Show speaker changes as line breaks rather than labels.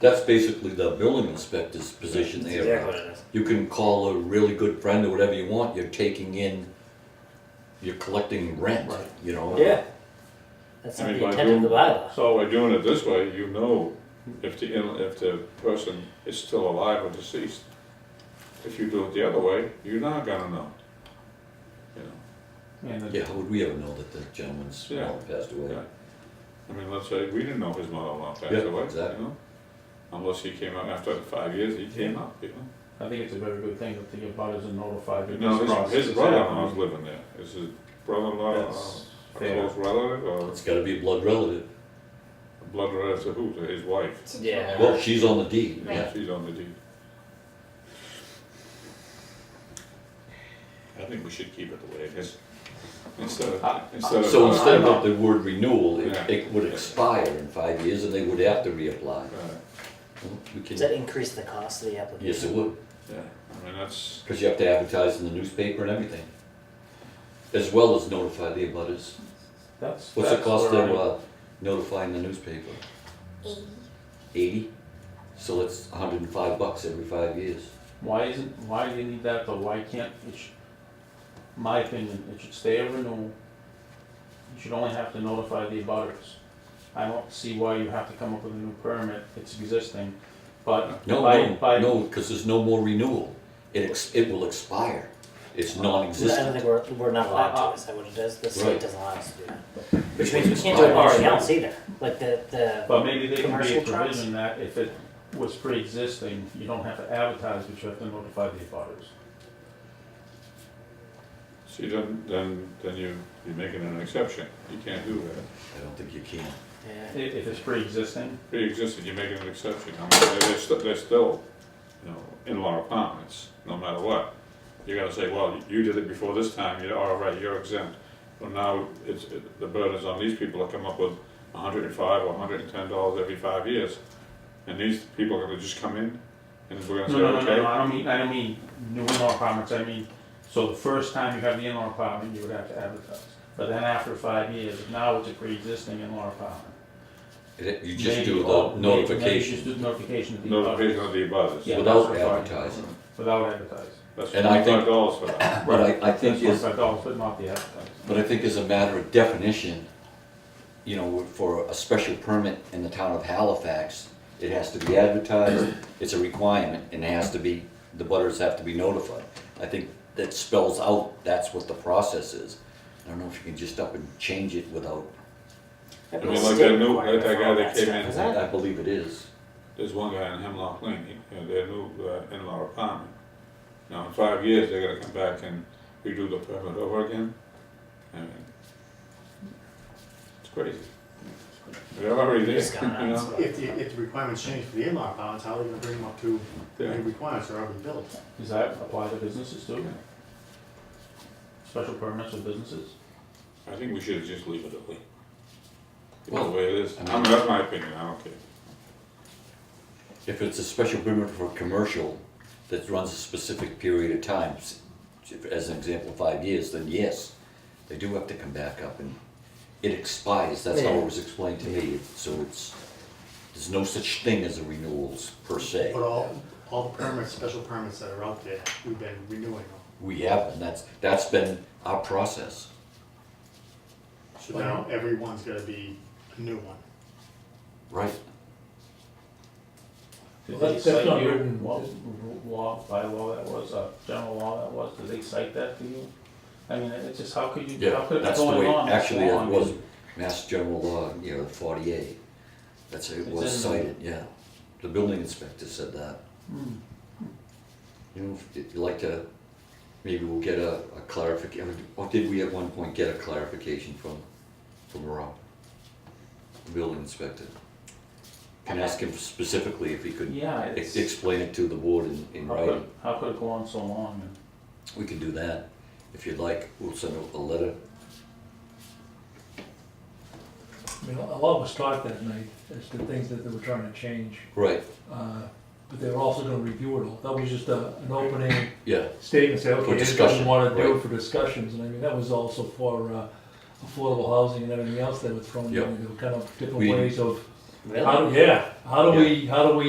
that's basically the building inspector's position
That's
there.
exactly what it is.
You can call a really good friend or whatever you want, you're taking in, you're collecting rent,
Right.
you know?
Yeah. That's
I
not
mean,
the
by
intent of the
doing-
bylaw.
So by doing it this way, you know if the, in- if the person is still alive or deceased. If you do it the other way, you're not gonna know. You know,
And the-
Yeah, how would we ever know that the gentleman's
Yeah.
mom passed away?
Yeah. I mean, let's say, we didn't know his mother-in-law passed
Yeah,
away, you
exactly.
know? Unless he came out after five years, he came out, you know?
I think it's a very good thing that the abutters are notified. that this
No,
process
his,
is
his brother-in-law's
happening.
living there. Is his brother-in-law a
That's
a
fair.
close relative or
It's gotta be a blood relative.
blood relative to who? To his wife?
Yeah.
Well, she's on the deed,
Yeah,
yeah.
She's on the deed. I think we should keep it the way it is. Instead of, instead of.
Uh, So instead of the word renewal, it,
uh, Yeah.
it would expire in five years and they would have to reapply.
Right,
We
Does that
can,
increase the cost of the application?
yes, it would,
Yeah, I mean, that's,
because you have to advertise in the newspaper and everything. As well as notify the abutters.
That's.
What's the
that's
cost
where
of
I-
uh, notifying the newspaper? Eighty. So that's hundred and five bucks every five years.
Why isn't, why do you need that though? Why can't, it should, my opinion, it should stay a renewal. You should only have to notify the abutters. I don't see why you have to come up with a new permit, it's existing, but
No,
by,
no,
by,
no, because there's no more renewal. It ex, it will expire. It's
I don't
non-existent.
think we're, we're not allowed
Uh,
to,
uh.
is that what it is? The
Right.
state doesn't allow us to do that. Which means we can't do it with
Alright.
anything else either, like the, the,
but maybe there can be a
Commercial trucks?
provision that if it was pre-existing, you don't have to advertise, but you have to notify the abutters.
see, then, then, then you, you're making an exception. You can't do that.
I don't think you can.
I-
yeah.
If, it's pre-existing,
Pre-existing, you're making an exception. I mean, they're, st- they're still, you know, in-law apartments, no matter what. You gotta say, well, you did it before this time, you're, all right, you're exempt. Well, now, it's, it- the burden's on these people to come up with a hundred and five or a hundred and ten dollars every five years. And these people are gonna just come in and we're gonna
No,
say,
no, no, no, no,
okay,
I don't mean, I don't mean new in-law apartments, I mean, so the first time you have the in-law apartment, you would have to advertise. But then after five years, now it's a pre-existing in-law apartment.
It- You just
Maybe-
do
oh,
the
maybe- maybe
notification
Just do notification to the
notification of
abutters
the abutters.
Yeah.
without
that's fine.
advertising.
without advertising.
That's
And I think-
twenty-five dollars for that.
But I, I think,
That's
as-
what I thought, but not the advertising.
but I think as a matter of definition, you know, for a special permit in the town of Halifax, it has to be advertised, it's a requirement, and it has to be, the butters have to be notified. I think that spells out, that's what the process is. I don't know if you can just up and change it without,
I mean, like that new, like that guy that came in.
Is that-
I believe it is.
There's one guy in Hemlock Lane, he, uh, their new uh, in-law apartment. Now, in five years, they're gonna come back and redo the permit over again. I mean, it's crazy. They're already there,
It's gone,
you know?
If, the- if the requirements change for the in-law apartments, how are they gonna bring them up to, the
Yeah.
requirements are already built?
Does that apply to businesses too? Special permits for businesses?
I think we should just leave it the way. The
Well,
way it is.
I
I
mean-
mean, that's my opinion, I don't care.
If it's a special permit for a commercial that runs a specific period of time, s- as an example, five years, then yes, they do have to come back up and it expires, that's how it was explained to me, so it's, there's no such thing as a renewals per se.
uh,
But all, all the permits, special permits that are out there, we've been renewing them.
We have, and that's, that's been our process.
So now everyone's gonna be a new one.
Right.
Did
Well,
they
that's- that's
cite
not
you,
written-
what r- law, bylaw that was, uh, general law that was, did they cite that to you? I mean, it's just, how could you, how could it
That's
go
the way,
on? this
actually,
long?
it was Mass General Law, you know, forty-eight, that's, it
It's
was
in the-
cited, yeah. The building inspector said that.
Hmm.
You know, if you'd like to, maybe we'll get a, a clarification, or did we at one point get a clarification from, from Rob? The building inspector? Can ask him specifically if he could
Yeah,
ex-
it's.
explain it to the board in, in
How could,
writing.
how could it go on so long? And
We can do that, if you'd like, we'll send a, a letter.
I mean, a lot was taught that night as to things that they were trying to change,
Right,
uh, but they were also gonna review it all. That was just a, an opening
yeah,
statement, say,
For
okay, this is what
discussion,
we wanna do
right.
for discussions, and I mean, that was also for, uh, affordable housing and everything else that was thrown
Yeah.
in, there were kind of different
We-
ways of,
Really?
how, do- yeah, how do we, how do we